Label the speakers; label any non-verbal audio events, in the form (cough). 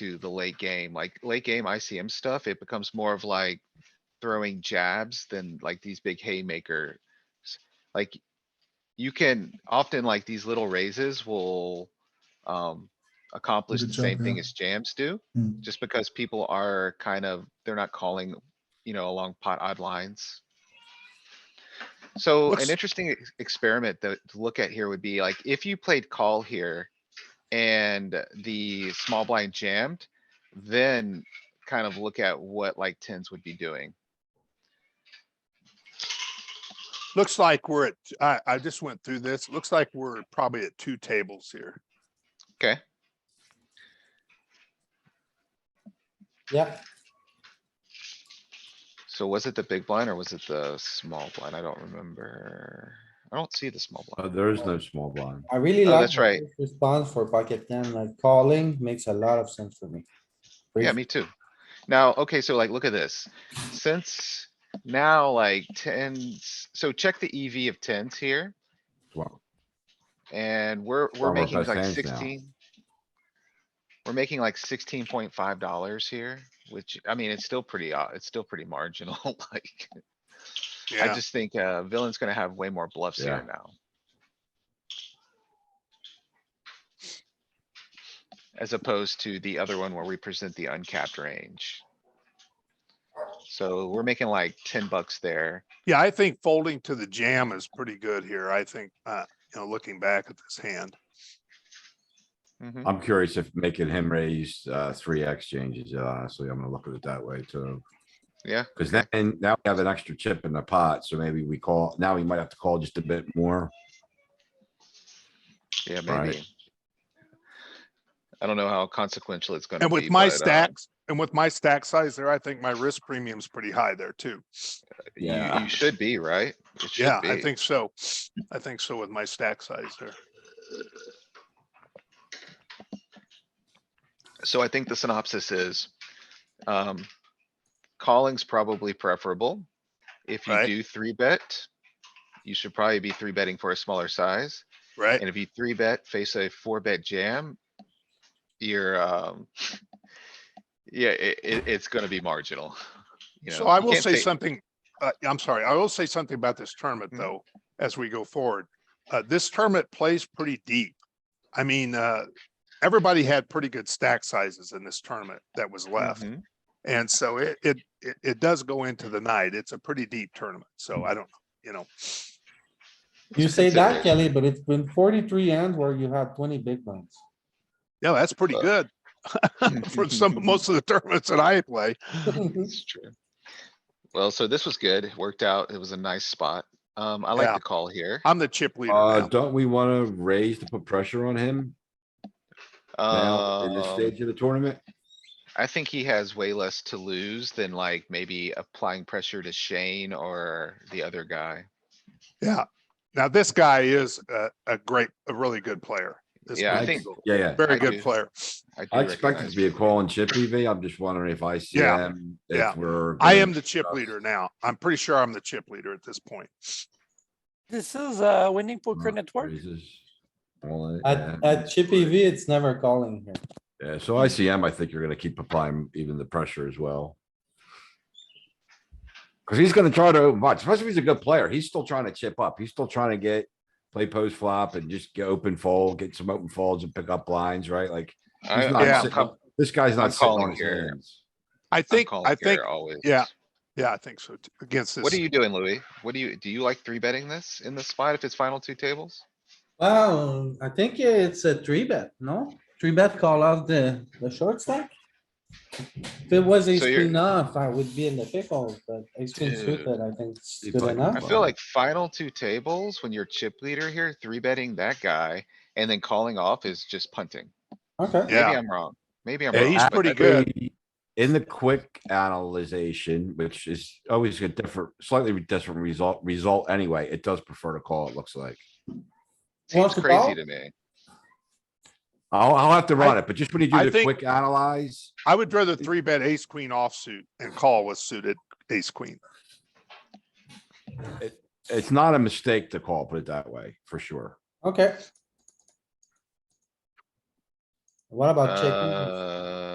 Speaker 1: into the late game, like late game ICM stuff, it becomes more of like throwing jabs than like these big haymaker. s- Like you can often like these little raises will um accomplish
Speaker 2: the
Speaker 1: the same
Speaker 2: jump,
Speaker 1: thing
Speaker 2: yeah.
Speaker 1: as jams do,
Speaker 2: Hmm.
Speaker 1: just because people are kind of, they're not calling, you know, along pot odd lines. So an
Speaker 3: What's-
Speaker 1: interesting ex- experiment that to look at here would be like, if you played call here and the small blind jammed, then kind of look at what like tens would be doing.
Speaker 3: Looks like we're at, I, I just went through this. Looks like we're probably at two tables here.
Speaker 1: Okay,
Speaker 2: Yeah,
Speaker 1: so was it the big blind or was it the small blind? I don't remember. I don't see the small
Speaker 4: Uh,
Speaker 1: blind.
Speaker 4: there is no small blind.
Speaker 2: I really
Speaker 1: Oh,
Speaker 2: like.
Speaker 1: that's
Speaker 2: the
Speaker 1: right.
Speaker 2: first Response for pocket ten, like calling makes a lot of sense for me.
Speaker 1: Yeah,
Speaker 2: Raise-
Speaker 1: me too. Now, okay, so like, look at this. Since now like tens, so check the EV of tens here
Speaker 4: Well,
Speaker 1: and we're,
Speaker 4: Well,
Speaker 1: we're
Speaker 4: we're
Speaker 1: making
Speaker 4: both
Speaker 1: like
Speaker 4: hands now.
Speaker 1: sixteen. We're making like sixteen point five dollars here, which, I mean, it's still pretty, uh, it's still pretty marginal, (laughs) like. I
Speaker 3: Yeah,
Speaker 1: just think, uh, villain's gonna have way more bluffs here
Speaker 4: Yeah.
Speaker 1: now. As opposed to the other one where we present the uncapped range. So we're making like ten bucks there.
Speaker 3: yeah, I think folding to the jam is pretty good here. I think, uh, you know, looking back at this hand.
Speaker 1: Mhm.
Speaker 4: I'm curious if making him raise, uh, three X changes, it, honestly, I'm gonna look at it that way too.
Speaker 1: Yeah,
Speaker 4: Cause then, and now we have an extra chip in the pot, so maybe we call, now we might have to call just a bit more.
Speaker 1: yeah,
Speaker 4: Right.
Speaker 1: maybe. I don't know how consequential it's gonna
Speaker 3: And
Speaker 1: be.
Speaker 3: with my
Speaker 1: but, uh,
Speaker 3: stacks, and with my stack size there, I think my risk premium's pretty high there too.
Speaker 1: You,
Speaker 4: Yeah.
Speaker 1: you should be, right? It should
Speaker 3: Yeah, I
Speaker 1: be.
Speaker 3: think so. I think so with my stack size there.
Speaker 1: So I think the synopsis is, um, calling's probably preferable. If you
Speaker 3: Right.
Speaker 1: do three bet, you should probably be three betting for a smaller size.
Speaker 3: Right?
Speaker 1: And if you three bet, face a four bet jam, you're, um, yeah, it, it, it's gonna be marginal. you
Speaker 3: So
Speaker 1: know,
Speaker 3: I
Speaker 1: you
Speaker 3: will
Speaker 1: can't
Speaker 3: say
Speaker 1: take-
Speaker 3: something, uh, I'm sorry, I will say something about this tournament
Speaker 1: Mhm.
Speaker 3: though, as we go forward. Uh, this tournament plays pretty deep. I mean, uh, everybody had pretty good stack sizes in this tournament that was left.
Speaker 1: Mhm.
Speaker 3: And so it, it, it, it does go into the night. It's a pretty deep tournament. So I don't, you know,
Speaker 2: You say
Speaker 1: consideration.
Speaker 2: that, Kelly, but it's been forty-three hands where you had twenty big ones.
Speaker 3: yeah, that's pretty
Speaker 1: Uh, (laughs)
Speaker 3: good
Speaker 1: Mm-hmm.
Speaker 3: (laughs) for some, most of the tournaments that I play.
Speaker 1: It's true. Well, so this was good. It worked out. It was a nice spot. Um, I like
Speaker 3: Yeah.
Speaker 1: the call here.
Speaker 3: I'm the chip leader
Speaker 4: Uh,
Speaker 3: now.
Speaker 4: don't we wanna raise to put pressure on him now in this
Speaker 1: Um,
Speaker 4: stage of the tournament?
Speaker 1: I think he has way less to lose than like maybe applying pressure to Shane or the other guy.
Speaker 3: Yeah. Now this guy is a, a great, a really good player. This
Speaker 1: Yeah, I
Speaker 3: Mike
Speaker 1: think-
Speaker 3: Eagle,
Speaker 4: Yeah, yeah.
Speaker 3: Very
Speaker 1: I
Speaker 3: good
Speaker 1: do.
Speaker 3: player.
Speaker 1: I do
Speaker 4: I expect it
Speaker 1: recognize
Speaker 4: to be a
Speaker 1: that.
Speaker 4: call and chip EV. I'm just wondering if ICM,
Speaker 3: yeah.
Speaker 4: if we're.
Speaker 3: I
Speaker 4: gonna-
Speaker 3: am the chip leader now. I'm pretty sure I'm the chip leader at this point.
Speaker 5: This is uh winning poker
Speaker 4: Not
Speaker 5: network.
Speaker 4: raises, all in, yeah.
Speaker 2: At, at Chippy E V, it's never calling here.
Speaker 4: Yeah, so ICM, I think you're gonna keep applying even the pressure as well. Cause he's gonna try to open pot, especially if he's a good player. He's still trying to chip up. He's still trying to get, play post flop and just get open fold, get some open folds and pick up blinds, right? Like,
Speaker 1: I-
Speaker 4: he's not
Speaker 3: Yeah.
Speaker 1: I'm
Speaker 4: sitting-
Speaker 1: com-
Speaker 4: this guy's
Speaker 1: I'm
Speaker 4: not sitting
Speaker 1: calling
Speaker 4: on his
Speaker 1: here.
Speaker 4: hands.
Speaker 3: I
Speaker 1: I'm
Speaker 3: think, I
Speaker 1: calling
Speaker 3: think,
Speaker 1: here always.
Speaker 3: yeah. yeah, I think so too, against
Speaker 1: What
Speaker 3: this.
Speaker 1: are you doing, Louis? What do you, do you like three betting this in this spot if it's final two tables?
Speaker 2: Wow, I think it's a three bet, no? Three bet call out the, the short stack? If it was ace
Speaker 1: So you're-
Speaker 2: queen off, I would be in the pickle, but ace queen
Speaker 1: Dude.
Speaker 2: suited, I think it's
Speaker 4: It's
Speaker 2: good
Speaker 4: like-
Speaker 2: enough.
Speaker 1: I
Speaker 4: Wow.
Speaker 1: feel like final two tables, when you're chip leader here, three betting that guy and then calling off is just punting.
Speaker 2: Okay,
Speaker 1: Maybe
Speaker 3: Yeah.
Speaker 1: I'm wrong. Maybe I'm
Speaker 3: Yeah,
Speaker 1: wrong.
Speaker 3: he's
Speaker 1: but
Speaker 3: pretty
Speaker 1: I-
Speaker 3: good.
Speaker 4: In the quick analyzation, which is always a different, slightly different result, result anyway, it does prefer to call, it looks like.
Speaker 1: Seems
Speaker 2: Want to
Speaker 1: crazy
Speaker 2: call?
Speaker 1: to me.
Speaker 4: I'll, I'll have to
Speaker 3: I-
Speaker 4: run it, but just when you
Speaker 3: I
Speaker 4: do the
Speaker 3: think-
Speaker 4: quick analyze,
Speaker 3: I would rather three bet ace queen offsuit and call with suited ace queen.
Speaker 4: it's not a mistake to call, put it that way, for sure.
Speaker 2: okay. What about checking?
Speaker 1: Uh,